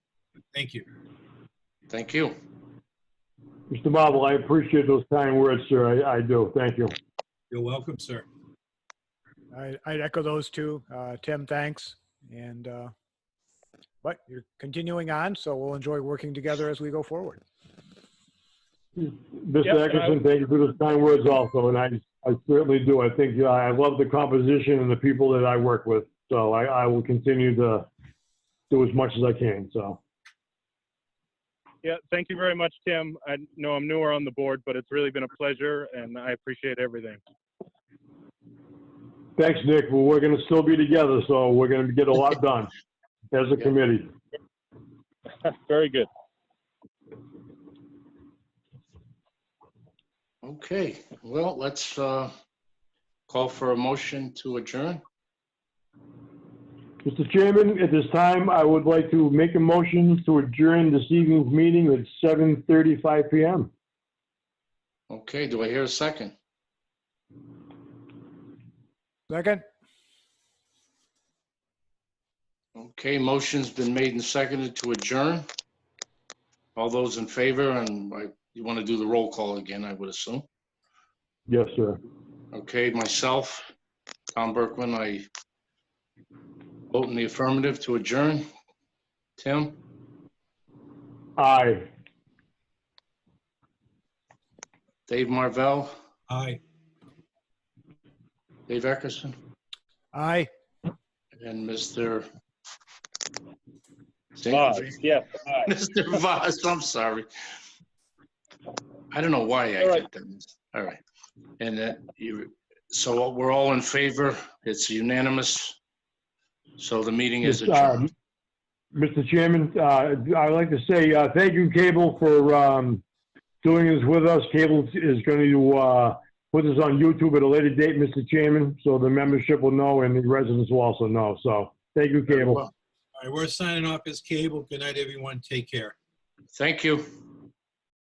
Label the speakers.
Speaker 1: Thank you.
Speaker 2: Thank you.
Speaker 3: Mr. Marble, I appreciate those kind words, sir. I, I do. Thank you.
Speaker 1: You're welcome, sir.
Speaker 4: I, I'd echo those two. Uh, Tim, thanks. And, uh, but you're continuing on, so we'll enjoy working together as we go forward.
Speaker 3: Mr. Eckerson, thank you for those kind words also, and I, I certainly do. I think, uh, I love the composition and the people that I work with, so I, I will continue to do as much as I can, so.
Speaker 5: Yeah, thank you very much, Tim. I know I'm newer on the board, but it's really been a pleasure and I appreciate everything.
Speaker 3: Thanks, Nick. Well, we're gonna still be together, so we're gonna get a lot done as a committee.
Speaker 5: Very good.
Speaker 2: Okay, well, let's uh, call for a motion to adjourn.
Speaker 3: Mr. Chairman, at this time, I would like to make a motion to adjourn this evening's meeting at 7:35 PM.
Speaker 2: Okay, do I hear a second?
Speaker 4: Second?
Speaker 2: Okay, motion's been made and seconded to adjourn. All those in favor, and I- you want to do the roll call again, I would assume.
Speaker 3: Yes, sir.
Speaker 2: Okay, myself, Tom Berkman, I vote in the affirmative to adjourn. Tim,
Speaker 3: Aye.
Speaker 2: Dave Marvell,
Speaker 1: Aye.
Speaker 2: Dave Eckerson,
Speaker 4: Aye.
Speaker 2: and Mr.
Speaker 5: Bye. Yes, bye.
Speaker 2: Mr. Voss, I'm sorry. I don't know why I
Speaker 5: All right.
Speaker 2: did that. All right. And that, you, so we're all in favor, it's unanimous. So the meeting is
Speaker 3: Yes, uh,
Speaker 2: adjourned.
Speaker 3: Mr. Chairman, uh, I'd like to say uh, thank you, Cable, for um, doing this with us. Cable is going to uh, put this on YouTube at a later date, Mr. Chairman, so the membership will know and the residents will also know. So thank you, Cable.
Speaker 1: All right, we're signing off as cable. Good night, everyone. Take care.
Speaker 2: Thank you.